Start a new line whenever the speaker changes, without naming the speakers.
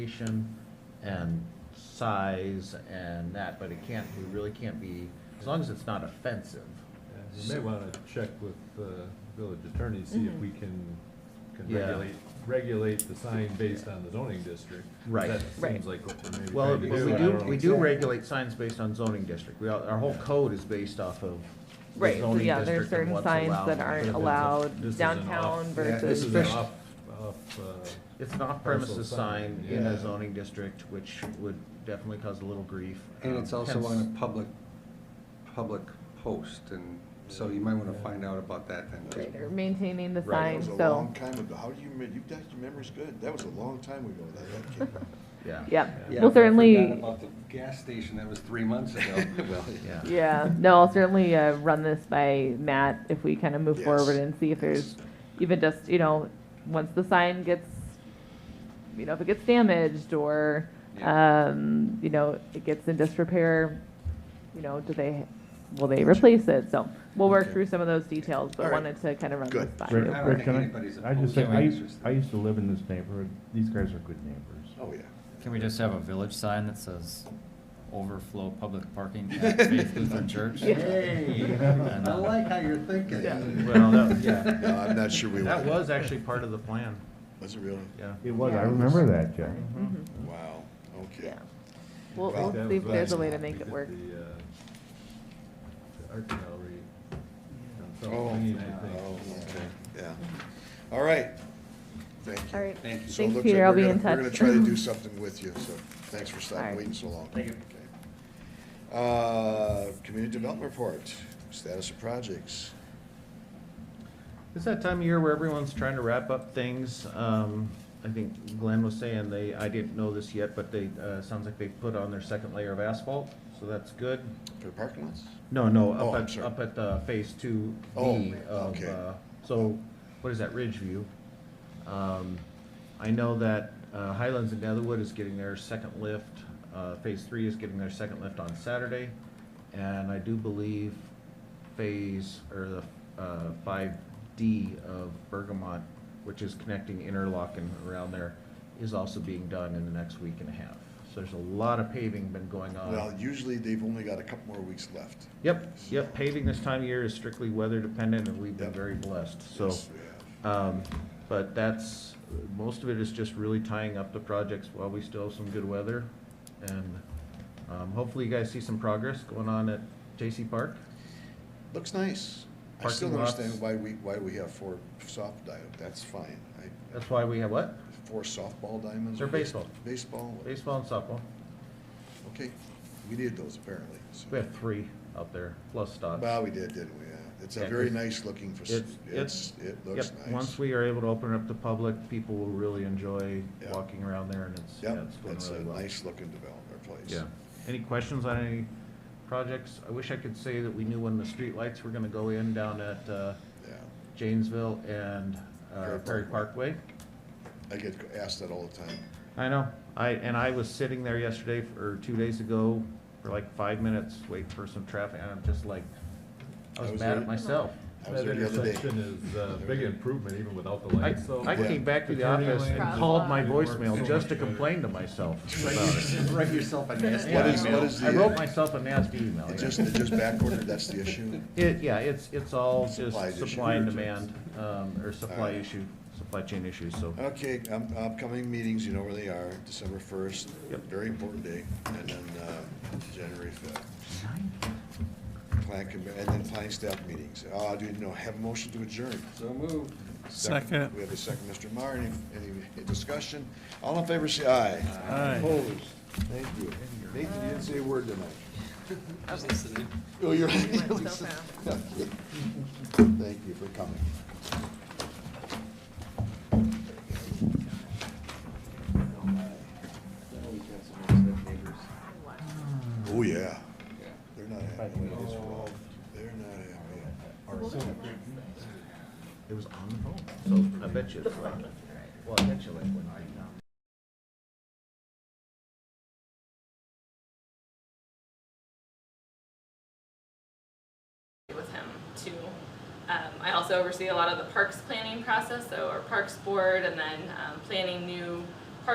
location and size and that, but it can't, it really can't be, as long as it's not offensive.
Yeah, You may want to check with the village attorney, see if
Mhm.
we can, can
Yeah.
regulate, regulate the sign based on the zoning district.
Right.
That
Right.
seems like what we're maybe
Well,
trying to
but
do.
we
I
do,
don't
we
know.
do regulate signs based on zoning district. We, all- our whole code is based off of the
Right, so
zoning
yeah, there's
district and
certain
what's
signs
allowed.
that
But
aren't
if it's a- this
allowed
is an off-
downtown
yeah, This
versus.
is an
especially-
off, off, uh,
It's an off-premises
Parcel
sign
sign,
in a
yeah.
zoning district, which would definitely cause a little grief.
And
um,
it's also
hence-
on a public, public post, and so you might wanna find out about that then. 'cause
Right, or maintaining the
Right.
sign,
That was a
so,
long time ago. How do you, remem- you guys, your memory's good. That was a long time ago that that came out.
Yeah.
yep,
Yeah,
well,
if I
certainly,
forgot About the gas station that was three months ago. Well,
Yeah.
yeah, no, I'll certainly, uh, run this by Matt if we kind of move
Yes.
forward and see if there's even just, you know, once the sign gets, you know, if it gets damaged or,
Yeah.
um, you know, it gets in disrepair, you know, do they, will they replace it? So we'll work
Okay.
through some of those details,
All
but
right.
wanted to kind of run this
Good.
by
Rick,
you.
I don't
Rick,
think
can
anybody's
I, I just
opposed
say,
to
I,
it.
used- I used to live in this neighborhood, these guys are good neighbors.
Oh, yeah.
Can we just have a village sign that says overflow public parking at Faith Lutheran Church?
Yeah.
Hey,
And,
I
uh,
like how you're thinking.
Yeah.
Well, that, yeah,
No, I'm not sure we
that
want,
was actually part of the plan,
was it really?
yeah.
It was,
Yeah.
I remember that, Jeff.
Mhm.
Wow, okay.
Yeah. We'll,
Well,
we'll
that
see if
was
there's a
last
way to
month. We
make it
did
work.
The uh, the art gallery. on South
Oh,
Main, I
yeah,
think.
oh, okay, yeah. All right. Thank you.
All right.
Thank you.
So it
Thanks,
looks like
Peter. I'll
we're
be
gonna-
in touch.
We're gonna try to do something with you, so thanks for
All
stopping,
right.
waiting so long. Thank you. Uh, community development report, status of projects.
It's that time of year where everyone's trying to wrap up things. Um, I think Glenn was saying they, I didn't know this yet, but they, uh, sounds like they put on their second layer of asphalt, so that's good.
For the parking lots?
No, no,
Oh,
up
I'm
at,
sorry.
up at, uh, phase two B
Oh,
of,
okay.
uh, so, what is that, Ridgeview? Um, I know that, uh, Highlands and Netherwood is getting their second lift, uh, phase three is getting their second lift on Saturday. And I do believe phase, or the, uh, five D of Bergamot, which is connecting Interlock and around there, is also being done in the next week and a half. So there's a lot of paving been going on.
Well, usually they've only got a couple more weeks left.
Yep, yep, paving this time of year is strictly weather dependent, and we've been
Yep.
very blessed, so.
Yes, we have.
Um, but that's, most of it is just really tying up the projects while we still have some good weather. And, um, hopefully you guys see some progress going on at J.C. Park.
Looks nice. I
Parking
still don't
lots.
understand why we, why we have four soft diamonds. That's fine. I,
That's why we have what?
four softball diamonds.
They're baseball.
Baseball,
Baseball and softball.
okay. We need those apparently. so-
We have three out there, plus Stotts.
Well, we did, didn't we? Yeah. It's a
Yeah,
very
'cause
nice looking, fac-
It's,
it's, it looks
yep,
nice.
Once we are able to open up to public, people will really enjoy
Yeah.
walking around there, and it's, yeah,
Yep,
it's going
it's a
really well.
nice looking development place.
Yeah. Any questions on any projects? I wish I could say that we knew when the streetlights were gonna go in down at uh,
Yeah.
Janesville and uh,
Prairie
Prairie Parkway.
I get asked that all the time.
I know, I, and I was sitting there yesterday, f- or two days ago, for like five minutes, waiting for some traffic, and I'm just like, I
I
was
was
mad
there-
at myself.
I was there the
That
other day.
intersection is uh, a big improvement even without the
I,
lights, so.
I came back to the office and called my voicemail just
uh,
to complain to myself about it.
Write yourself a nasty
What is,
email.
what is the?
I wrote myself a nasty email,
It
yeah.
just, it just backordered, that's the issue?
It, yeah, it's, it's all just
Supply issue.
supply and demand, um, or supply
Alright.
issue, supply chain issues, so.
Okay, um, upcoming meetings, you know where they are, December first,
Yep.
very important day, and then, uh, January fifth. Plan, com- and then planning staff meetings. Uh, I didn't know, have a motion to adjourn.
So moved.
Second. We have a second, Mr. Meyer, any, any discussion? All in favor, say aye. Aye. Opposed? Thank you. Nathan, you didn't say a word tonight. I was listening. Oh, you're. Thank you for coming. Oh, yeah. They're not happy. They're not happy.
It was on the phone, so I bet you it's like, well, I bet you like when I,
with him too. Um, I also oversee a lot of the parks planning process, so our parks board, and then um, planning new